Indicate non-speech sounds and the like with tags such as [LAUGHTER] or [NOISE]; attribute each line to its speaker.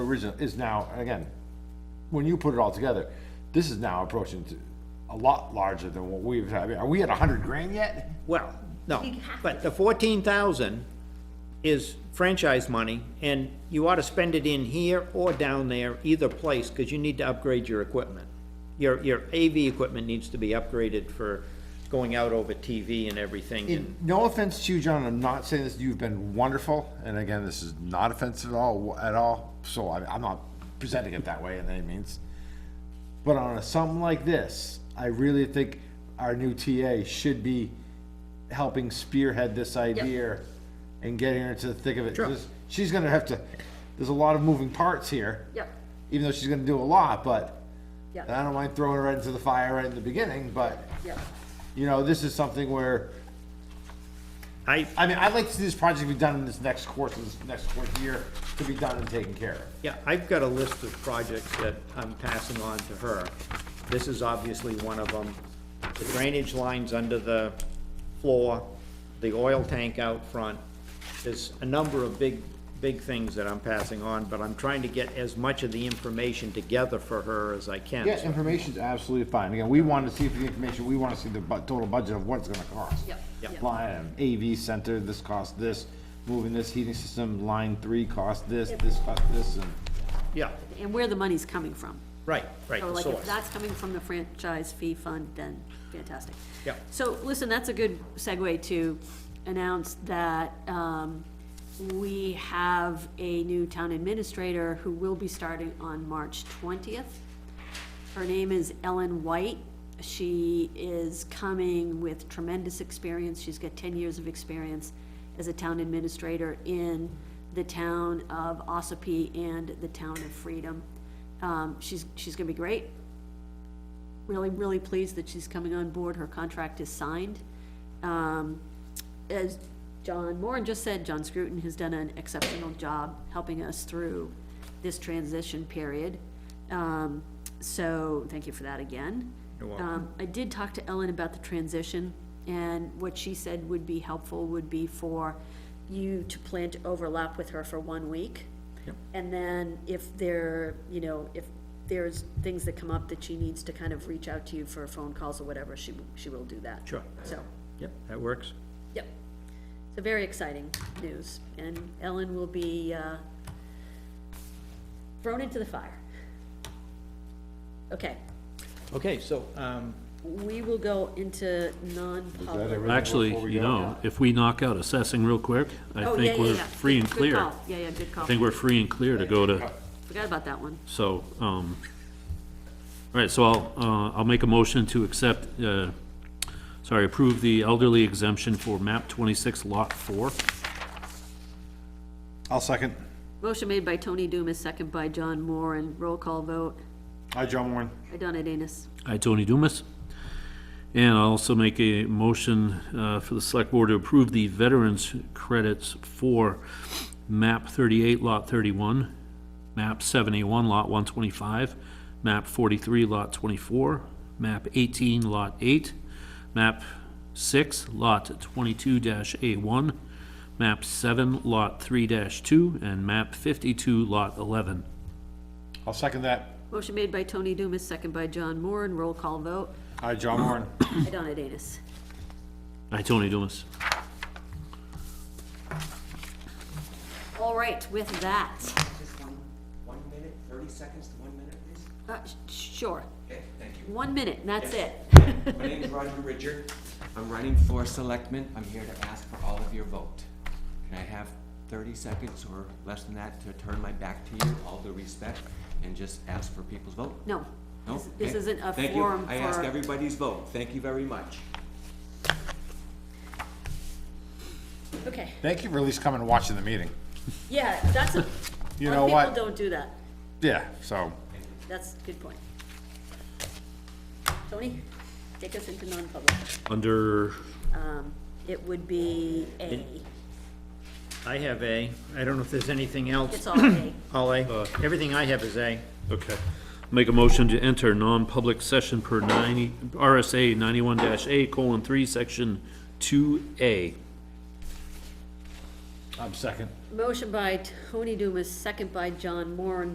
Speaker 1: original, is now, again, when you put it all together, this is now approaching to a lot larger than what we've had. Are we at a hundred grand yet?
Speaker 2: Well, no, but the fourteen thousand is franchise money, and you ought to spend it in here or down there, either place, because you need to upgrade your equipment. Your, your AV equipment needs to be upgraded for going out over TV and everything, and,
Speaker 1: No offense to you, John, I'm not saying this, you've been wonderful, and again, this is not offensive at all, at all, so I, I'm not presenting it that way in any means. But on a, something like this, I really think our new TA should be helping spearhead this idea and getting her into the thick of it.
Speaker 2: Sure.
Speaker 1: 'Cause She's gonna have to, there's a lot of moving parts here.
Speaker 3: Yep.
Speaker 1: Even though she's gonna do a lot, but,
Speaker 3: Yep.
Speaker 1: and I don't mind throwing her right into the fire right in the beginning, but,
Speaker 3: Yep.
Speaker 1: you know, this is something where
Speaker 2: I,
Speaker 1: I mean, I'd like to see this project be done in this next course, this next course year, to be done and taken care of.
Speaker 2: yeah, I've got a list of projects that I'm passing on to her. This is obviously one of them. The drainage lines under the floor, the oil tank out front. There's a number of big, big things that I'm passing on, but I'm trying to get as much of the information together for her as I can.
Speaker 1: Yeah, information's absolutely fine. Again, we want to see the information, we want to see the bu- total budget of what it's gonna cost.
Speaker 3: Yep, yep.
Speaker 1: Line, item, AV center, this cost this, moving this heating system, line three cost this, this cost this, and.
Speaker 2: Yeah,
Speaker 3: And where the money's coming from.
Speaker 2: right, right,
Speaker 3: So
Speaker 2: the
Speaker 3: Oh, like, if
Speaker 2: source.
Speaker 3: that's coming from the franchise fee fund, then fantastic.
Speaker 2: Yeah.
Speaker 3: So, listen, that's a good segue to announce that, um, we have a new town administrator who will be starting on March twentieth. Her name is Ellen White. She is coming with tremendous experience. She's got ten years of experience as a town administrator in the town of Ossipee and the town of Freedom. Um, she's, she's gonna be great. Really, really pleased that she's coming on board. Her contract is signed. Um, as John Moran just said, John Scruton has done an exceptional job helping us through this transition period. Um, so, thank you for that again.
Speaker 2: You're welcome.
Speaker 3: Um, I did talk to Ellen about the transition, and what she said would be helpful would be for you to plan to overlap with her for one week.
Speaker 2: Yep.
Speaker 3: And then if there, you know, if there's things that come up that she needs to kind of reach out to you for phone calls or whatever, she, w- she will do that.
Speaker 2: Sure.
Speaker 3: So,
Speaker 2: Yep, that works.
Speaker 3: Yep. So very exciting news, and Ellen will be, uh, thrown into the fire. Okay,
Speaker 2: Okay, so, um,
Speaker 3: we will go into non-public.
Speaker 4: Actually, you know, if we knock out assessing real quick, I
Speaker 3: Oh, yeah,
Speaker 4: think
Speaker 3: yeah,
Speaker 4: we're
Speaker 3: yeah.
Speaker 4: free and
Speaker 3: Good
Speaker 4: clear.
Speaker 3: call. Yeah, yeah, good call.
Speaker 4: I think we're free and clear to go to,
Speaker 3: Forgot about that one.
Speaker 4: so, um, all right, so I'll, uh, I'll make a motion to accept, uh, sorry, approve the elderly exemption for map twenty-six lot four.
Speaker 1: I'll second.
Speaker 3: Motion made by Tony Dumas, second by John Moore, and roll call vote.
Speaker 1: Hi, John Warren.
Speaker 3: I done it, Anus.
Speaker 4: I, Tony Dumas. And I'll also make a motion uh, for the select board to approve the veterans credits for map 38, lot 31, map 71, lot 125, map 43, lot 24, map 18, lot 8, map 6, lot 22-A1, map 7, lot 3-2, and map 52, lot 11.
Speaker 1: I'll second that.
Speaker 3: Motion made by Tony Dumas, second by John Moore, and roll call vote.
Speaker 1: Hi, John Warren.
Speaker 3: I done it, Anus.
Speaker 4: I, Tony Dumas.
Speaker 3: All right, with that,
Speaker 5: Just one, one minute, thirty seconds to one minute, please?
Speaker 3: uh, sh- sure,
Speaker 5: Okay, thank you.
Speaker 3: one minute, and that's it.
Speaker 5: [LAUGHS] My name is Roger Richard. I'm running for selectman. I'm here to ask for all of your vote. And I have thirty seconds or less than that to turn my back to you, all due respect, and just ask for people's vote.
Speaker 3: [LAUGHS] No,
Speaker 5: No?
Speaker 3: this- this
Speaker 5: Okay.
Speaker 3: isn't a
Speaker 5: Thank you.
Speaker 3: forum
Speaker 5: I ask
Speaker 3: for,
Speaker 5: everybody's vote. Thank you very much.
Speaker 3: okay,
Speaker 1: Thank you for at least coming and watching the meeting.
Speaker 3: yeah, that's, a lot
Speaker 1: You know
Speaker 3: of people
Speaker 1: what?
Speaker 3: don't do that,
Speaker 1: Yeah, so,
Speaker 3: that's a good point. Tony, take us into non-public.
Speaker 4: Under
Speaker 3: Um, It would be A,
Speaker 2: I have A, I don't know if there's anything else.
Speaker 3: it's all A.
Speaker 2: All A, everything I have is A.
Speaker 4: Okay. Make a motion to enter non-public session per ninety, RSA ninety-one dash A colon three, section two A.
Speaker 1: I'm second.
Speaker 3: Motion by Tony Dumas, second by John Moore,